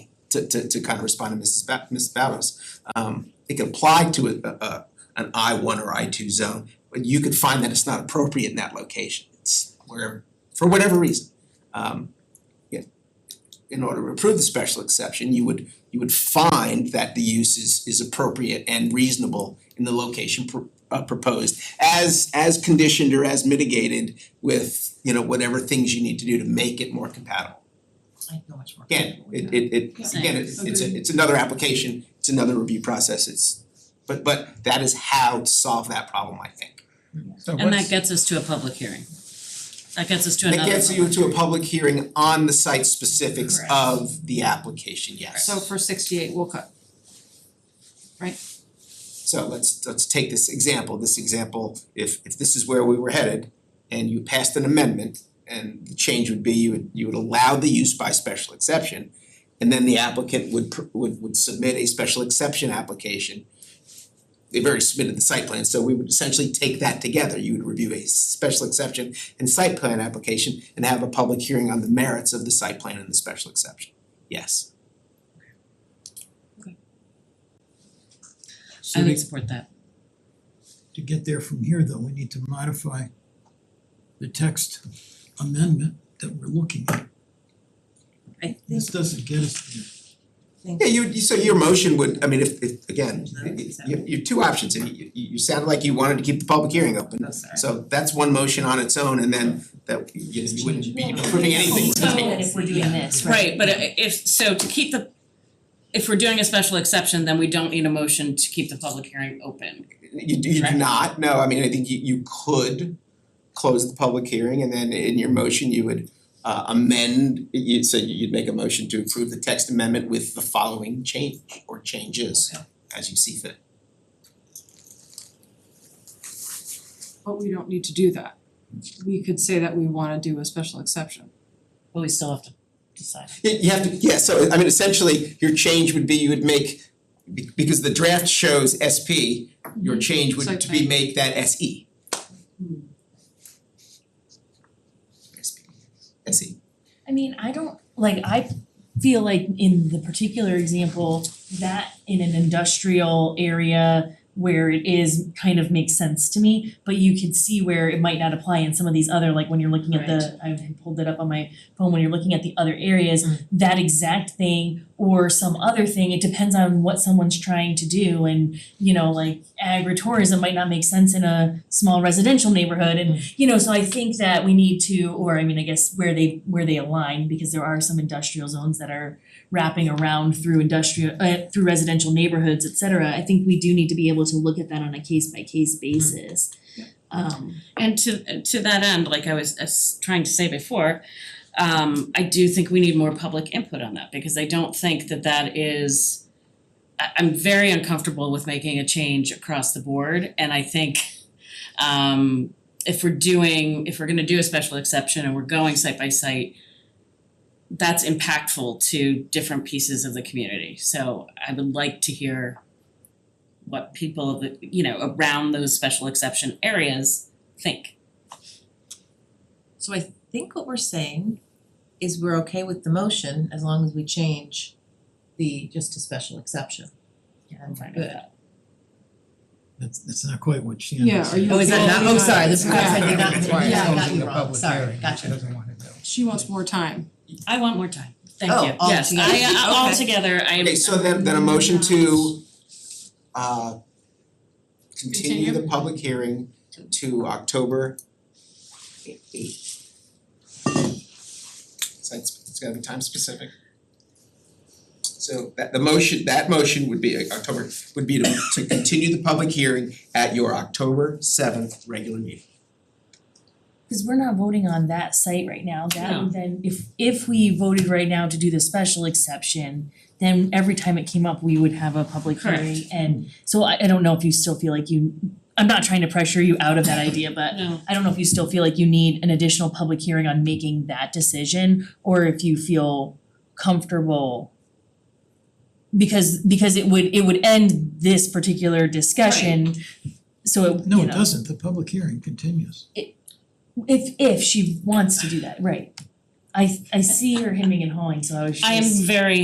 to to to kind of respond to Mrs. Ba- Ms. Ballas. Um it could apply to a a a- an I one or I two zone, but you could find that it's not appropriate in that location, it's wherever, for whatever reason. Um yeah, in order to approve the special exception, you would you would find that the use is is appropriate and reasonable in the location pro- uh proposed as as conditioned or as mitigated with, you know, whatever things you need to do to make it more compatible. I feel much more Again, comfortable with it that. it it again, it it's a, Agreed. it's another application, it's another review process, it's but but that is how to solve that problem, I think. So And that what's, gets us to a public hearing. That gets us to That another gets you public, to a public hearing on the site specifics Correct. of the application, yes. So for sixty-eight, we'll cut. So let's let's take this example, this example, if if this is where we were headed and you passed an amendment and the change would be you would you would allow the use by special exception and then the applicant would pr- would would submit a special exception application. They've already submitted the site plan, so we would essentially take that together. You would review a special exception and site plan application and have a public hearing on the merits of the site plan and the special exception. Yes, I so would to support that. to get there from here though, we need to modify the text amendment that we're looking at. I This doesn't get us there. Yeah, you you- so your motion would, I mean, if if again, No, y- y- it's not. you you have two options, and you you you sounded like you wanted to keep the public hearing open. Oh, sorry. So that's one motion on its own and then that you you wouldn't be approving anything Oh, So- tonight. if we're doing this, Right, but i- if, so to keep the, if we're doing a special exception, then we don't need a motion to keep the public hearing open. You do you do Correct. not, no, I mean, I think you you could close the public hearing and then in your motion you would uh amend, you so you'd make a motion to approve the text amendment with the following change or changes as you see fit. But we don't need to do that. We could say that we wanna do a special exception. But we still have to decide. You you have to, yeah, so I mean, essentially, your change would be you would make, be- because the draft shows SP, your change would Site to be plan. make that E. SE. SP, SE. I mean, I don't, like, I feel like in the particular example, that in an industrial area where it is kind of makes sense to me, but you can see where it might not apply in some of these other, like when you're looking at the, I pulled it up on my phone, when you're looking at the other areas, that exact thing or some other thing, it depends on what someone's trying to do and, you know, like agritourism might not make sense in a small residential neighborhood and you know, so I think that we need to, or I mean, I guess where they where they align, because there are some industrial zones that are wrapping around through industrial uh through residential neighborhoods, et cetera. I think we do need to be able to look at that on a case by case basis. Um And to to that end, like I was uh, s- trying to say before, um I do think we need more public input on that because I don't think that that is I I'm very uncomfortable with making a change across the board and I think um if we're doing, if we're gonna do a special exception and we're going site by site, that's impactful to different pieces of the community. So I would like to hear what people that, you know, around those special exception areas think. So I think what we're saying is we're okay with the motion as long as we change the just a special exception. Yeah, I'm fine with that. That's that's not quite what Shannon Yeah, said. are you Oh, is that okay? not, oh, sorry, this Yeah. perhaps I did not, Yeah. yeah, I Closing got you the wrong, public sorry, hearing, gotcha. She doesn't wanna do. She wants more time. I want more time. Thank Oh, you. all Yes, together. I I- all Okay. together, I am Okay, so then then a motion to uh continue the Continue. public hearing to October eighth. So it's it's gotta be time specific. So that the motion, that motion would be uh, October, would be to to continue the public hearing at your October seventh regular meeting. Cause we're not voting on that site right now, that No. would then, if if we voted right now to do the special exception, then every time it came up, we would have a public hearing and so I I don't know if you still feel like you, I'm not trying to pressure you out of that idea, but No, I don't know if you still feel like you need an additional public hearing on making that decision or if you feel comfortable. Because because it would it would end this particular discussion, so it, No, you it know, doesn't, the public hearing continues. if if she wants to do that, right. I I see her hemming and hawing, so I was just. I am very